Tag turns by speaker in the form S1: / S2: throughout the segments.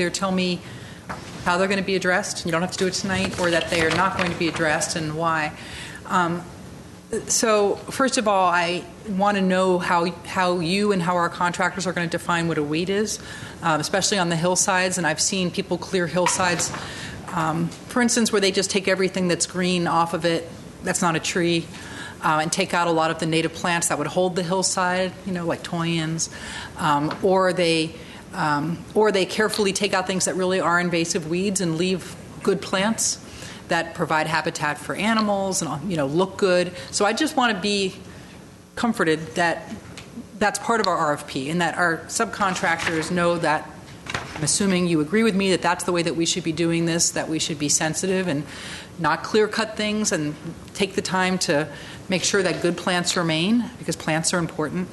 S1: either tell me how they're going to be addressed, you don't have to do it tonight, or that they are not going to be addressed and why. Um, So first of all, I want to know how, how you and how our contractors are going to define what a weed is, um, especially on the hillsides, and I've seen people clear hillsides, um, for instance, where they just take everything that's green off of it, that's not a tree, uh, and take out a lot of the native plants that would hold the hillside, you know, like toyans, um, or they um, or they carefully take out things that really are invasive weeds and leave good plants that provide habitat for animals and you know look good. So I just want to be comforted that that's part of our RFP and that our subcontractors know that. I'm assuming you agree with me that that's the way that we should be doing this, that we should be sensitive and not clear cut things and take the time to make sure that good plants remain because plants are important.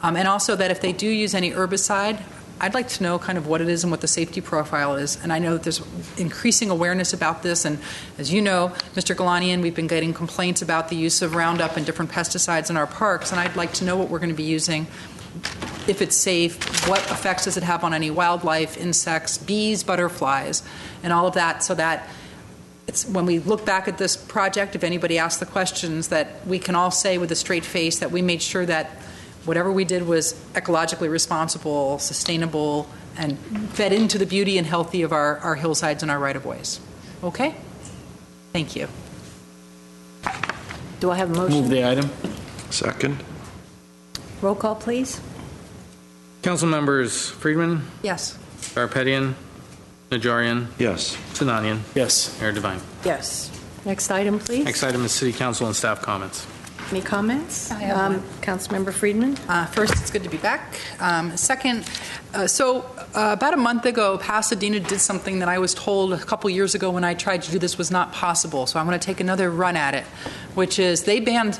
S1: Um, and also that if they do use any herbicide, I'd like to know kind of what it is and what the safety profile is. And I know that there's increasing awareness about this. And as you know, Mr. Galanian, we've been getting complaints about the use of Roundup and different pesticides in our parks. And I'd like to know what we're going to be using, if it's safe, what effects does it have on any wildlife, insects, bees, butterflies, and all of that, so that it's, when we look back at this project, if anybody asks the questions, that we can all say with a straight face that we made sure that whatever we did was ecologically responsible, sustainable, and fed into the beauty and healthy of our, our hillsides and our right-of-ways. Okay? Thank you.
S2: Do I have a
S3: Move
S2: motion?
S3: the item.
S4: Second?
S2: Roll call, please.
S3: Council members: Friedman,
S1: Yes.
S3: Garpetian, Najarian,
S4: Yes.
S3: Sinanian,
S5: Yes.
S3: Mayor Devine.
S2: Yes. Next item, please.
S3: Next item is city council and staff comments.
S2: Any comments?
S1: I have
S2: Um,
S1: one.
S2: Councilmember Friedman?
S1: Uh, First, it's good to be back. Um, Second, uh, so uh, about a month ago, Pasadena did something that I was told a couple years ago when I tried to do this was not possible. So I'm going to take another run at it, which is they banned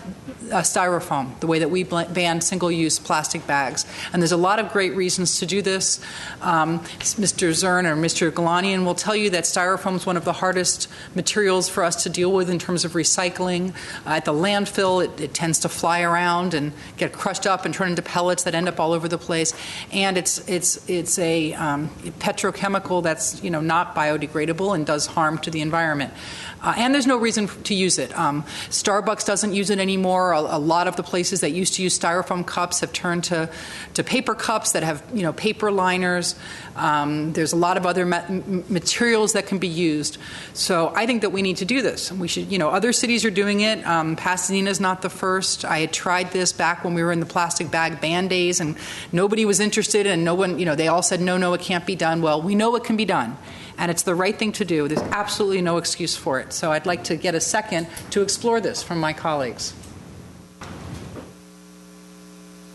S1: uh, styrofoam the way that we bl- ban single-use plastic bags. And there's a lot of great reasons to do this. Um, Mr. Zern or Mr. Galanian will tell you that styrofoam is one of the hardest materials for us to deal with in terms of recycling. Uh, at the landfill, it, it tends to fly around and get crushed up and turn into pellets that end up all over the place. And it's it's it's a um, petrochemical that's you know not biodegradable and does harm to the environment. Uh, and there's no reason f- to use it. Um, Starbucks doesn't use it anymore. A, a lot of the places that used to use styrofoam cups have turned to to paper cups that have you know paper liners. Um, there's a lot of other ma- m- materials that can be used. So I think that we need to do this. We should, you know, other cities are doing it. Um, Pasadena's not the first. I had tried this back when we were in the plastic bag ban days, and nobody was interested, and no one, you know, they all said, no, no, it can't be done. Well, we know it can be done, and it's the right thing to do. There's absolutely no excuse for it. So I'd like to get a second to explore this from my colleagues.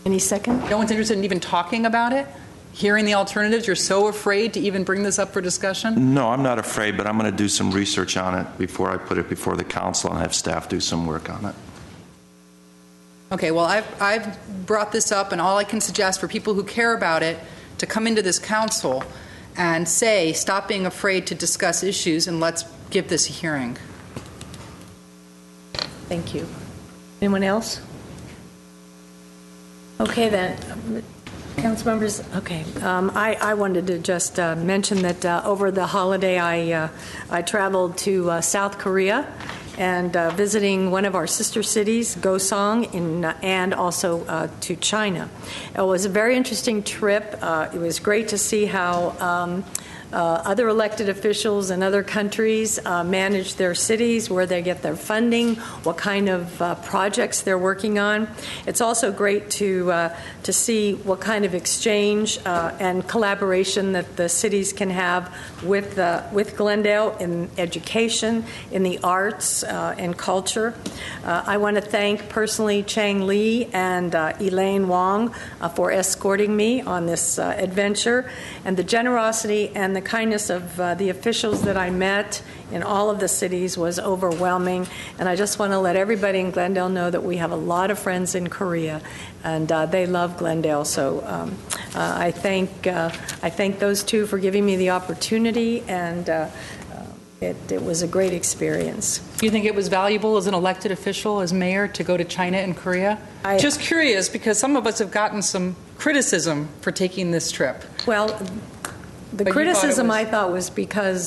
S2: Any second?
S1: No one's interested in even talking about it. Hearing the alternatives, you're so afraid to even bring this up for discussion.
S4: No, I'm not afraid, but I'm going to do some research on it before I put it before the council and have staff do some work on it.
S1: Okay, well, I've, I've brought this up, and all I can suggest for people who care about it to come into this council and say, stop being afraid to discuss issues and let's give this a hearing.
S2: Thank you. Anyone else? Okay, then. Um, council members. okay. Um, I I wanted to just uh, mention that uh, over the holiday, I uh, I traveled to uh, South Korea and uh, visiting one of our sister cities, Gosong, in- and also uh, to China. It was a very interesting trip. Uh, It was great to see how um, uh, other elected officials in other countries uh, manage their cities, where they get their funding, what kind of uh, projects they're working on. It's also great to uh, to see what kind of exchange uh, and collaboration that the cities can have with uh, with Glendale in education, in the arts, uh, and culture. Uh, I want to thank personally Chang Lee and uh, Elaine Wong uh, for escorting me on this uh, adventure, and the generosity and the kindness of uh, the officials that I met in all of the cities was overwhelming. And I just want to let everybody in Glendale know that we have a lot of friends in Korea, and uh, they love Glendale. So um, uh, I thank uh, I thank those two for giving me the opportunity, and uh, uh, it, it was a great experience.
S1: Do you think it was valuable as an elected official, as mayor, to go to China and Korea?
S2: I-
S1: Just curious, because some of us have gotten some criticism for taking this trip.
S2: Well, The
S1: But you thought it
S2: criticism,
S1: was-
S2: I thought, was because